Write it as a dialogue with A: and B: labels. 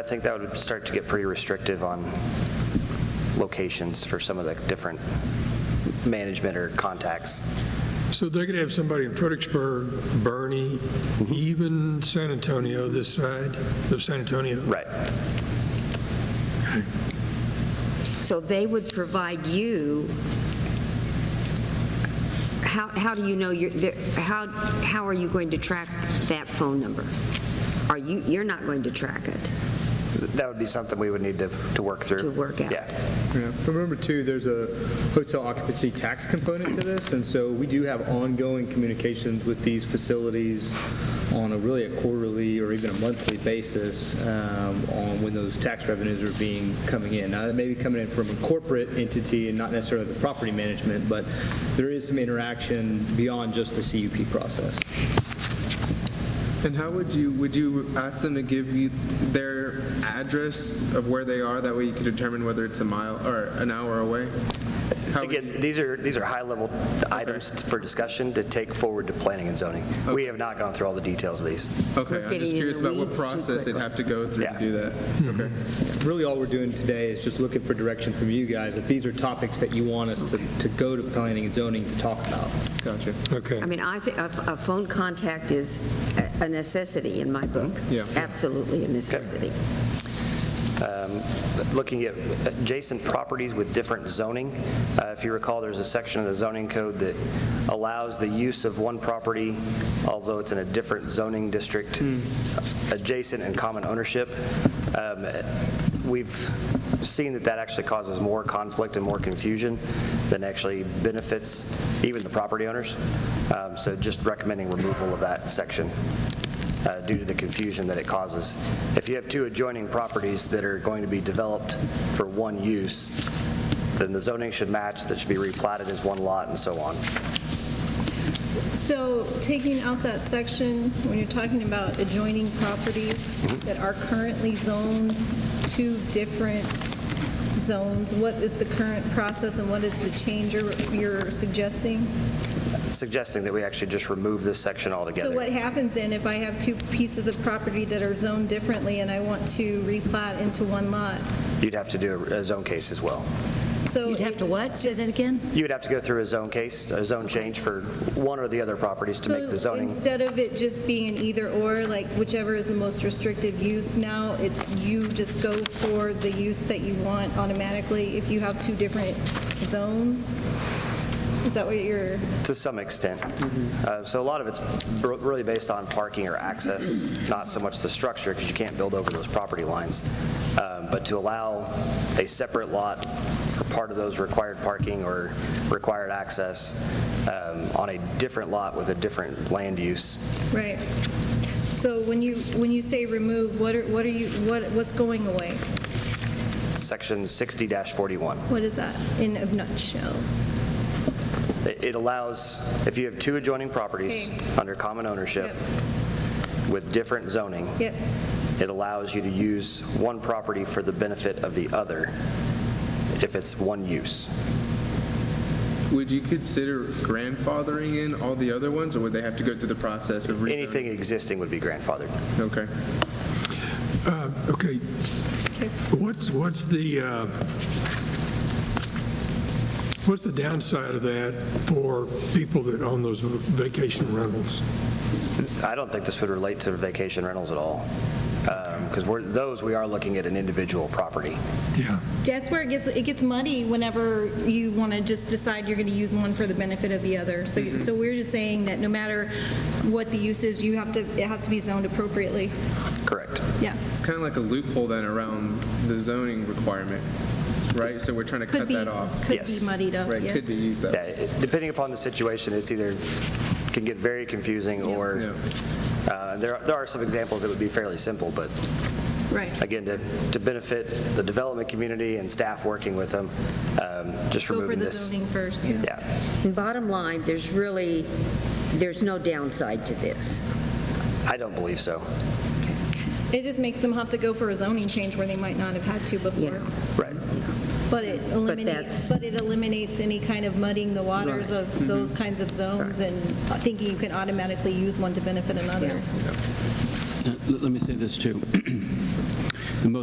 A: I think that would start to get pretty restrictive on locations for some of the different management or contacts.
B: So they could have somebody in Fredericksburg, Bernie, even San Antonio, this side of San Antonio.
A: Right.
C: So they would provide you, how, how do you know your, the- how, how are you going to track that phone number? Are you, you're not going to track it
A: That would be something we would need to, to work through.
C: to work out?
A: Yeah.
D: Yeah, but remember too, there's a hotel occupancy tax component to this, and so we do have ongoing communications with these facilities on a really a quarterly or even a monthly basis um, on when those tax revenues are being, coming in. Now, that may be coming in from a corporate entity and not necessarily the property management, but there is some interaction beyond just the CUP process.
E: And how would you, would you ask them to give you their address of where they are? That way you could determine whether it's a mile or an hour away? How would you-
A: Again, these are, these are high-level items for discussion to take forward to planning and zoning. We have not gone through all the details of these.
E: Okay, I'm
C: getting in
E: just
C: the
E: curious about what
C: weeds too
E: process they'd
C: quickly.
E: have to go through to
A: Yeah. Mm-hmm.
E: do that. Okay.
D: Really, all we're doing today is just looking for direction from you guys, if these are topics that you want us to to go to planning and zoning to talk about.
E: Gotcha.
B: Okay.
C: I mean, I think a a phone contact is a- a necessity in my book.
E: Yeah.
C: Absolutely a necessity.
A: Um, Looking at adjacent properties with different zoning, uh, if you recall, there's a section of the zoning code that allows the use of one property, although it's in a different zoning district, adjacent and common ownership. Um, We've seen that that actually causes more conflict and more confusion than actually benefits even the property owners. Um, So just recommending removal of that section uh, due to the confusion that it causes. If you have two adjoining properties that are going to be developed for one use, then the zoning should match, that should be replatted as one lot and so on.
F: So taking out that section, when you're talking about adjoining properties
G: Mm-hmm.
F: that are currently zoned to different zones, what is the current process and what is the change you're- you're suggesting?
A: Suggesting that we actually just remove this section
F: So what
A: altogether.
F: happens then if I have two pieces of property that are zoned differently and I want to replat into one lot?
A: You'd have to do a a zone case as well.
F: So
G: You'd have to what? Say that again?
A: You would have to go through a zone case, a zone change for one or the other properties to make the
F: So
A: zoning.
F: Instead of it just being an either-or, like whichever is the most restrictive use now, it's you just go for the use that you want automatically if you have two different zones? Is that what you're,
A: To some extent. Uh, So a lot of it's br- really based on parking or access, not so much the structure, because you can't build over those property lines. Um, But to allow a separate lot for part of those required parking or required access um, on a different lot with a different land use,
F: right? So when you, when you say remove, what are, what are you, what, what's going away?
A: section 60-41.
F: What is that in a nutshell?
A: It it allows, if you have two adjoining properties
F: Okay.
A: under common ownership
F: Yep.
A: with different zoning,
F: Yep,
A: it allows you to use one property for the benefit of the other if it's one use.
E: Would you consider grandfathering in all the other ones, or would they have to go through the process of rezoning?
A: Anything existing would be grandfathered.
E: Okay.
B: Uh, Okay. What's, what's the, uh, what's the downside of that for people that own those vacation rentals?
A: I don't think this would relate to vacation rentals at all, because we're, those, we are looking at an individual property.
B: Yeah.
F: that's where it gets, it gets muddy whenever you want to just decide you're going to use one for the benefit of the other.
E: Mm-hmm.
F: So, so we're just saying that no matter what the use is, you have to, it has to be zoned appropriately.
A: Correct.
F: Yeah.
E: It's kind of like a loophole then around the zoning requirement, right? So we're trying to
F: Could
E: cut
F: be,
E: that off.
F: could
A: Yes.
F: be muddied up,
E: Right,
F: yeah.
E: could be used that.
A: Yeah, it- Depending upon the situation, it's either, can get very confusing, or, uh, there are- there are some examples that would be fairly simple, but
F: Right.
A: again, to to benefit the development community and staff working with them, um, just
F: Go for
A: removing
F: the
A: this.
F: zoning first.
A: Yeah.
C: And bottom line, there's really, there's no downside to this.
A: I don't believe so.
F: It just makes them have to go for a zoning change where they might not have had to before.
C: Yeah.
A: Right.
F: But it
C: that's-
F: eliminates, but it eliminates any kind of muddying the waters
E: Mm-hmm.
F: of those kinds of zones and thinking you can automatically use one to benefit another.
H: Uh, l- Let me say this, too.